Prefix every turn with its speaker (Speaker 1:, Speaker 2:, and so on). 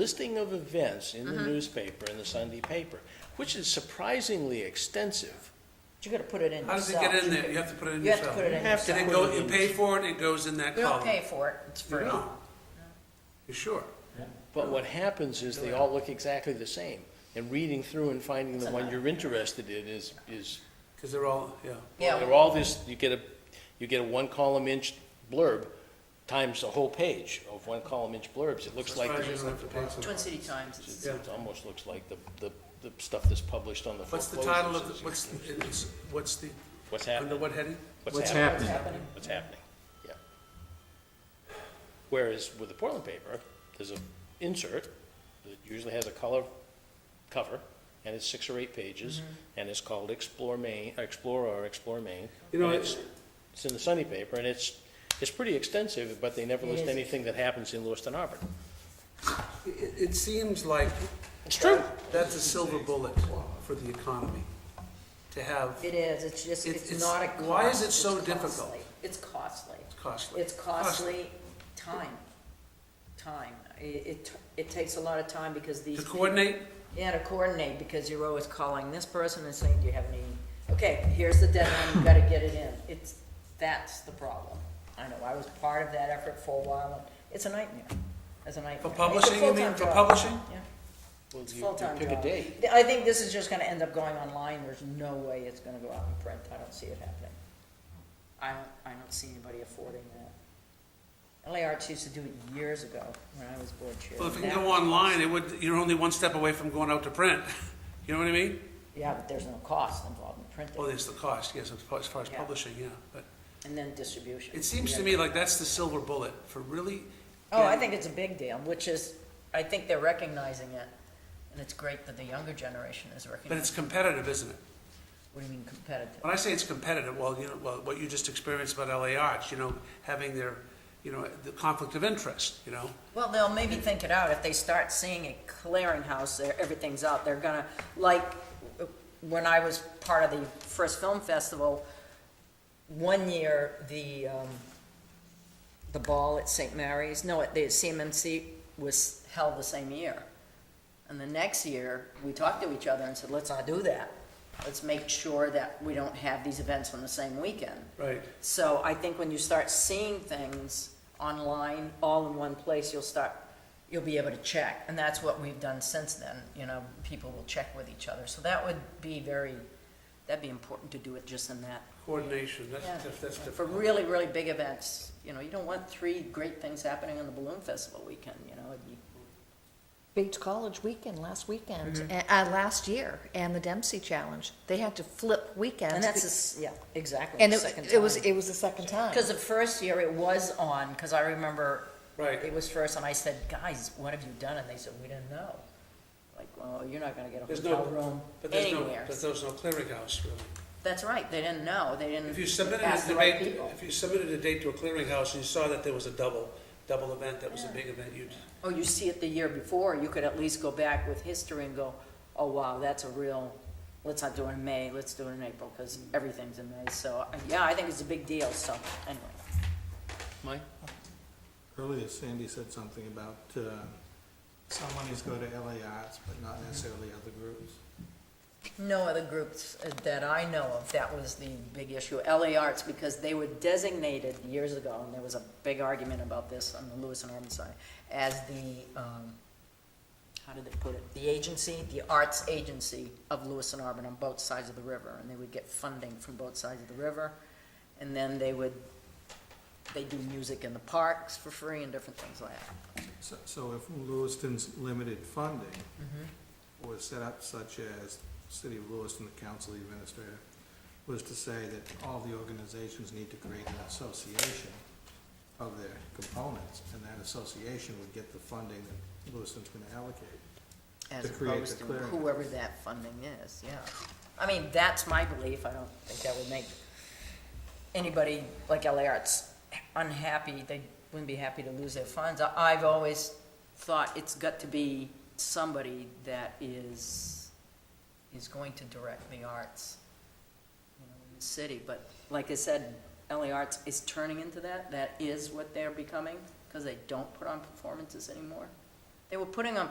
Speaker 1: listing of events in the newspaper, in the Sunday paper, which is surprisingly extensive.
Speaker 2: You gotta put it in
Speaker 3: How does it
Speaker 2: yourself.
Speaker 3: get in there? You have to put it in
Speaker 2: You have to
Speaker 3: yourself.
Speaker 2: put it in
Speaker 1: You have to
Speaker 2: yourself.
Speaker 3: And it
Speaker 1: Put
Speaker 3: go,
Speaker 1: it
Speaker 3: you
Speaker 1: in.
Speaker 3: pay for it, it goes in that
Speaker 2: You don't
Speaker 3: column.
Speaker 2: pay for it, it's free.
Speaker 3: No. You sure?
Speaker 1: But what happens is they all look exactly the same. And reading through and finding the one you're interested in is, is,
Speaker 3: Because they're all, yeah.
Speaker 2: Yeah.
Speaker 1: they're all this, you get a, you get a one column inch blurb times a whole page of one column inch blurbs. It looks like,
Speaker 3: Surprised
Speaker 1: the-
Speaker 3: you don't have to pay for it.
Speaker 2: Twin City Times, it's-
Speaker 1: it almost looks like the, the, the stuff that's published on the
Speaker 3: What's
Speaker 1: foreclosures.
Speaker 3: the title of, the- what's, it's, what's the,
Speaker 1: What's
Speaker 3: under
Speaker 1: happening?
Speaker 3: what heading?
Speaker 1: What's happening?
Speaker 2: it's happening.
Speaker 1: what's happening. Yeah. Whereas with the Portland paper, there's an insert that usually has a color cover, and it's six or eight pages, and it's called Explore Maine, or Explore or Explore Maine.
Speaker 3: You know,
Speaker 1: and
Speaker 3: I-
Speaker 1: it's, it's in the Sunday paper, and it's, it's pretty extensive, but they never
Speaker 2: It
Speaker 1: list
Speaker 2: is.
Speaker 1: anything that happens in Lewiston Harbor.
Speaker 3: It, it seems like
Speaker 1: It's true.
Speaker 3: that's a silver bullet for the economy, to have
Speaker 2: it is, it's just,
Speaker 3: It-
Speaker 2: it's
Speaker 3: it's-
Speaker 2: not a cost.
Speaker 3: why is it
Speaker 2: it's
Speaker 3: so
Speaker 2: costly.
Speaker 3: difficult?
Speaker 2: It's costly.
Speaker 3: costly.
Speaker 2: It's costly time, time. I- It, it takes a lot of time because these.
Speaker 3: To coordinate,
Speaker 2: Yeah, to coordinate, because you're always calling this person and saying, do you have any, okay, here's the deadline, you gotta get it in. It's, that's the problem. I know, I was part of that effort for a while, and it's a nightmare, it's a nightmare.
Speaker 3: for
Speaker 2: It's a
Speaker 3: publishing, you mean,
Speaker 2: full-time
Speaker 3: for
Speaker 2: job.
Speaker 3: publishing?
Speaker 2: Yeah,
Speaker 1: Well,
Speaker 2: it's a
Speaker 1: you- you
Speaker 2: full-time
Speaker 1: Pick a
Speaker 2: job.
Speaker 1: date.
Speaker 2: I think this is just gonna end up going online, there's no way it's gonna go out in print, I don't see it happening. I don't, I don't see anybody affording that. LA Arts used to do it years ago, when I was board chair.
Speaker 3: Well, if it can
Speaker 2: That-
Speaker 3: go online, it would, you're only one step away from going out to print. You know what I mean?
Speaker 2: Yeah, but there's no cost involved in printing.
Speaker 3: Well, there's the cost, yes, as far as far as
Speaker 2: Yeah.
Speaker 3: publishing, yeah, but.
Speaker 2: And then distribution.
Speaker 3: It seems to me like that's the silver bullet for really.
Speaker 2: Oh, I think it's a big deal, which is, I think they're recognizing it, and it's great that the younger generation is
Speaker 3: But it's
Speaker 2: recognizing.
Speaker 3: competitive, isn't it?
Speaker 2: What do you mean competitive?
Speaker 3: When I say it's competitive, well, you know, well, what you just experienced about LA Arts, you know, having their, you know, the conflict of interest, you know?
Speaker 2: Well, they'll maybe think it out, if they start seeing a clearinghouse, there, everything's out, they're gonna, like, uh, when I was part of the first film festival, one year, the, um, the ball at St. Mary's, no, at the CMMC was held the same year. And the next year, we talked to each other and said, let's not do that. Let's make sure that we don't have these events on the same weekend.
Speaker 3: Right.
Speaker 2: So I think when you start seeing things online, all in one place, you'll start, you'll be able to check. And that's what we've done since then, you know, people will check with each other. So that would be very, that'd be important to do it just in that.
Speaker 3: Coordination, that's,
Speaker 2: Yeah.
Speaker 3: that's- that's
Speaker 2: For
Speaker 3: difficult.
Speaker 2: really, really big events, you know, you don't want three great things happening on the Balloon Festival weekend, you know, it'd be
Speaker 4: Bates College weekend last weekend,
Speaker 2: Mm-hmm.
Speaker 4: a- uh, last year, and the Dempsey Challenge. They had to flip weekends.
Speaker 2: And that's,
Speaker 4: be-
Speaker 2: the s- yeah, exactly,
Speaker 4: and
Speaker 2: the
Speaker 4: it,
Speaker 2: second
Speaker 4: it was
Speaker 2: time.
Speaker 4: it was the second time.
Speaker 2: Because the first year it was on, because I remember it
Speaker 3: Right.
Speaker 2: was first, and I said, guys, what have you done? And they said, we didn't know. Like, well, you're not gonna get a
Speaker 3: There's
Speaker 2: hotel
Speaker 3: no-
Speaker 2: room
Speaker 3: But there's no,
Speaker 2: anywhere.
Speaker 3: but there's no clearinghouse, really.
Speaker 2: That's right, they didn't know, they didn't
Speaker 3: If you submitted
Speaker 2: ask
Speaker 3: a
Speaker 2: the right
Speaker 3: debate,
Speaker 2: people.
Speaker 3: if you submitted a date to a clearinghouse and you saw that there was a double, double event, that was a big event, you'd,
Speaker 2: Or Oh, you see it the year before, you could at least go back with history and go, oh, wow, that's a real, let's not do it in May, let's do it in April, because everything's in May. So, yeah, I think it's a big deal, so, anyway.
Speaker 1: Mike?
Speaker 5: Earlier Sandy said something about uh, some monies go to LA Arts, but not necessarily other groups.
Speaker 2: No other groups uh, that I know of, that was the big issue. LA Arts, because they were designated years ago, and there was a big argument about this on the Lewis and Arm side, as the, um, how did they put it? The agency, the arts agency of Lewis and Arm on both sides of the river, and they would get funding from both sides of the river. And then they would, they do music in the parks for free and different things like that.
Speaker 5: So- So if Lewiston's limited funding was set up such as City of Lewiston, the council administrator, was to say that all the organizations need to create an association of their components, and that association would get the funding that Lewiston's going to allocate.
Speaker 2: as
Speaker 5: To create
Speaker 2: opposed to
Speaker 5: the clearinghouse.
Speaker 2: whoever that funding is, yeah. I mean, that's my belief, I don't think that would make anybody like LA Arts unhappy, they wouldn't be happy to lose their funds. I- I've always thought it's got to be somebody that is, is going to direct the arts, you know, in the city, but like I said, LA Arts is turning into that, that is what they're becoming, because they don't put on performances anymore. They were putting on